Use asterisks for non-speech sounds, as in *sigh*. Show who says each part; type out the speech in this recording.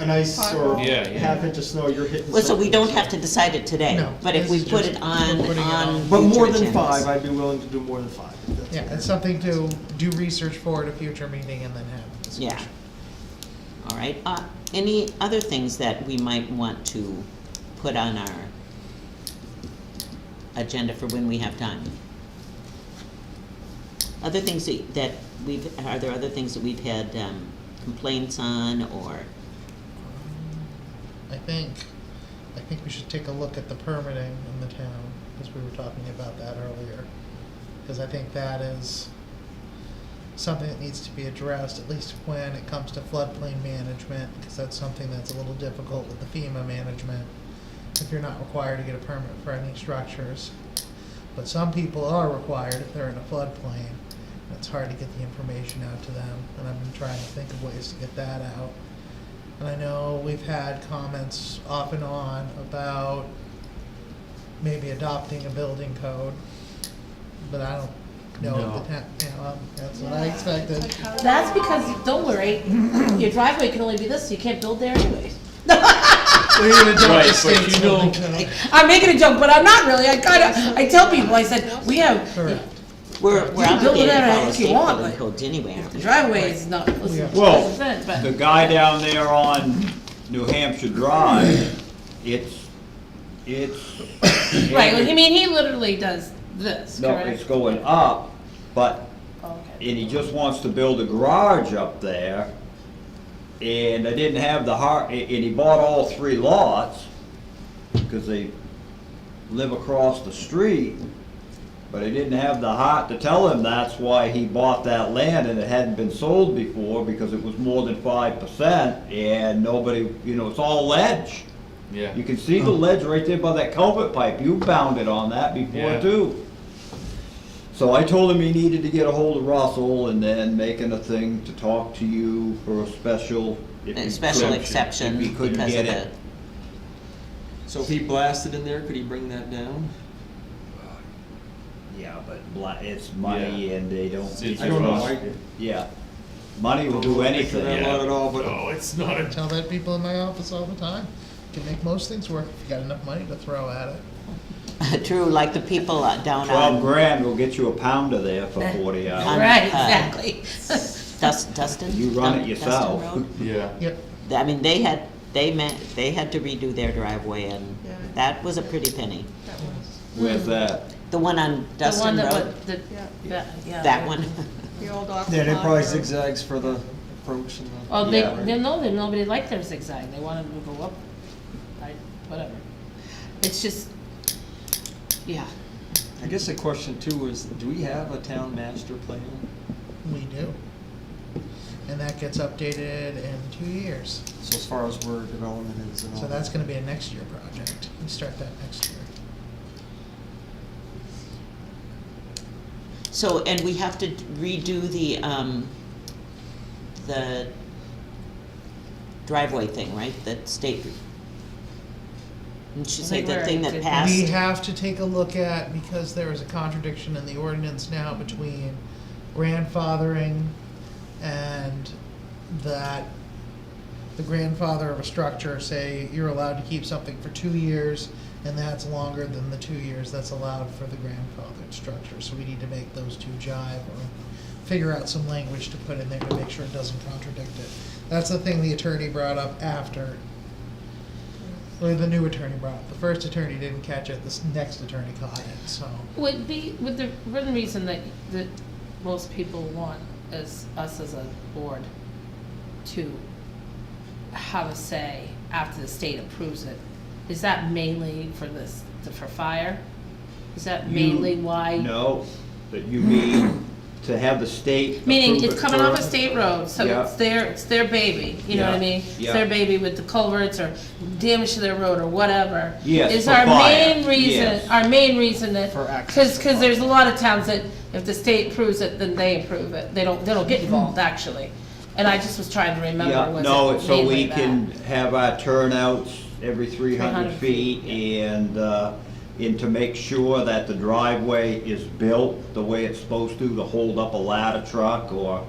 Speaker 1: an ice or
Speaker 2: Yeah, yeah.
Speaker 1: half inch of snow, you're hitting.
Speaker 3: Well, so we
Speaker 1: something.
Speaker 3: don't have to decide it today,
Speaker 4: No,
Speaker 3: but if we
Speaker 4: it's
Speaker 3: put
Speaker 4: just
Speaker 3: it on,
Speaker 4: putting it
Speaker 3: on.
Speaker 4: on.
Speaker 1: But more
Speaker 3: future
Speaker 1: than
Speaker 3: agendas.
Speaker 1: five, I'd be willing to do more than five. if that's
Speaker 4: Yeah,
Speaker 1: what
Speaker 4: it's
Speaker 1: you're-
Speaker 4: something to do research for at a future meeting and then have a
Speaker 3: Yeah.
Speaker 4: discussion.
Speaker 3: All right, uh, any other things that we might want to put on our agenda for when we have time? Other things that that we've, are there other things that we've had um, complaints on or,
Speaker 4: I think, I think we should take a look at the permitting in the town, because we were talking about that earlier. Because I think that is something that needs to be addressed, at least when it comes to floodplain management, because that's something that's a little difficult with the FEMA management, if you're not required to get a permit for any structures. But some people are required if they're in a floodplain, and it's hard to get the information out to them, and I've been trying to think of ways to get that out. And I know we've had comments off and on about maybe adopting a building code, but I don't know if the town, you know, um, that's what I *laughs* expected.
Speaker 5: That's because, you- don't worry, *clears throat* your driveway can only be this, so you can't build there anyways.
Speaker 4: We're gonna adopt
Speaker 2: Right,
Speaker 4: the
Speaker 2: but
Speaker 4: state's
Speaker 2: you know-
Speaker 4: building code.
Speaker 5: I'm making a joke, but I'm not really, I kinda, I tell people, I said, we have,
Speaker 4: Correct.
Speaker 3: we're we're
Speaker 5: You can
Speaker 3: obligated
Speaker 5: build
Speaker 3: to
Speaker 5: whatever
Speaker 3: follow
Speaker 5: if you
Speaker 3: state
Speaker 5: want,
Speaker 3: building
Speaker 5: but-
Speaker 3: codes anyway, aren't
Speaker 5: the
Speaker 3: we?
Speaker 5: driveway is not,
Speaker 4: Yeah.
Speaker 5: listen,
Speaker 6: Well,
Speaker 5: it's not,
Speaker 6: The
Speaker 5: but,
Speaker 6: guy down there on New Hampshire Drive, it's, it's.
Speaker 5: *coughs* right, like, I mean, he literally does this,
Speaker 6: No, it's
Speaker 5: correct? Oh,
Speaker 6: going up, but,
Speaker 5: Okay.
Speaker 6: and he just wants to build a garage up there. And I didn't have the heart, and he bought all three lots, because they live across the street. But I didn't have the heart to tell him that's why he bought that land and it hadn't been sold before because it was more than five percent and nobody, you know, it's all ledge.
Speaker 2: Yeah.
Speaker 6: You can see
Speaker 2: *clears throat*
Speaker 6: the ledge right there by that culvert pipe. You bounded on that before
Speaker 2: Yeah.
Speaker 6: too. So I told him he needed to get a hold of Russell and then making a thing to talk to you for a special. if
Speaker 3: A
Speaker 6: he
Speaker 3: special
Speaker 6: could-
Speaker 3: exception
Speaker 6: If he couldn't
Speaker 3: because of
Speaker 6: get
Speaker 3: the,
Speaker 6: it.
Speaker 7: So if he blasted in there, could he bring that down?
Speaker 6: Yeah, but bla- it's money
Speaker 2: Yeah.
Speaker 6: and they don't.
Speaker 2: It's- it's
Speaker 1: I don't know, I,
Speaker 6: Yeah, money will do anything.
Speaker 7: Yeah. not at all, but-
Speaker 2: No, it's not
Speaker 4: I
Speaker 2: a,
Speaker 4: Tell that people in my office all the time, you can make most things work if you got enough money to throw at
Speaker 3: *laughs*
Speaker 4: it.
Speaker 3: true, like the people uh, down
Speaker 6: Twelve
Speaker 3: on
Speaker 6: grand will get you a pounder there for forty hours.
Speaker 5: Right,
Speaker 3: uh,
Speaker 5: exactly.
Speaker 3: Dust- Dustin?
Speaker 6: You run it
Speaker 3: Dun- Dustin
Speaker 6: yourself. *laughs*
Speaker 3: Road?
Speaker 2: yeah.
Speaker 4: Yep,
Speaker 3: I mean, they had, they meant, they had to redo their driveway and that was a pretty penny.
Speaker 6: Where's that?
Speaker 3: The one on
Speaker 5: *laughs* The one
Speaker 3: Dustin
Speaker 5: that,
Speaker 3: Road,
Speaker 5: would- the, that, yeah.
Speaker 3: that one. *laughs*
Speaker 8: The old Aqua
Speaker 1: then it probably
Speaker 8: Locker.
Speaker 1: zigzags for the approach and the.
Speaker 5: Well, they,
Speaker 6: Yeah.
Speaker 5: they know that nobody liked their zigzag, they wanted to go up, I, whatever. It's just, yeah.
Speaker 7: I guess the question too is, do we have a town master plan?
Speaker 4: we do. And that gets updated in two years,
Speaker 1: So as far as where development is and all.
Speaker 4: so that's
Speaker 1: that.
Speaker 4: gonna be a next year project, we start that next year.
Speaker 3: So, and we have to redo the, um, the driveway thing, right? That state, didn't she
Speaker 5: I
Speaker 3: say
Speaker 5: think
Speaker 3: the
Speaker 5: we're-
Speaker 3: thing that
Speaker 5: did-
Speaker 3: passed?
Speaker 4: We have to take a look at, because there is a contradiction in the ordinance now between grandfathering and that the grandfather of a structure, say, you're allowed to keep something for two years, and that's longer than the two years that's allowed for the grandfathered structure, so we need to make those two jive or figure out some language to put in there to make sure it doesn't contradict it. That's the thing the attorney brought up after well, the new attorney brought it. The first attorney didn't catch it, this next attorney caught it, so.
Speaker 5: Would be, would the, one reason that, that most people want is us as a board to have a say after the state approves it, is that mainly for this, for fire? Is that mainly why?
Speaker 6: No, that you mean to have the state.
Speaker 5: Meaning,
Speaker 6: approve it
Speaker 5: it's coming off a
Speaker 6: first?
Speaker 5: state road, so
Speaker 6: Yeah.
Speaker 5: it's their, it's their baby, you know what I
Speaker 6: Yeah,
Speaker 5: mean? It's
Speaker 6: yeah.
Speaker 5: their baby with the culverts or damage to their road or whatever.
Speaker 6: Yes,
Speaker 5: Is
Speaker 6: for
Speaker 5: our
Speaker 6: fire,
Speaker 5: main reason,
Speaker 6: yes.
Speaker 5: our main reason that,
Speaker 1: For access
Speaker 5: cause,
Speaker 1: for
Speaker 5: cause
Speaker 1: fire.
Speaker 5: there's a lot of towns that if the state approves it, then they approve it, they don't, they don't get involved,
Speaker 1: Mm-hmm.
Speaker 5: actually. And I just was trying to remember,
Speaker 6: Yeah,
Speaker 5: was
Speaker 6: no,
Speaker 5: it
Speaker 6: so
Speaker 5: mainly
Speaker 6: we
Speaker 5: that?
Speaker 6: can have our turnouts every three
Speaker 5: 300
Speaker 6: hundred feet and, uh, and to make sure that the driveway is built the way it's supposed to, to hold up a ladder truck or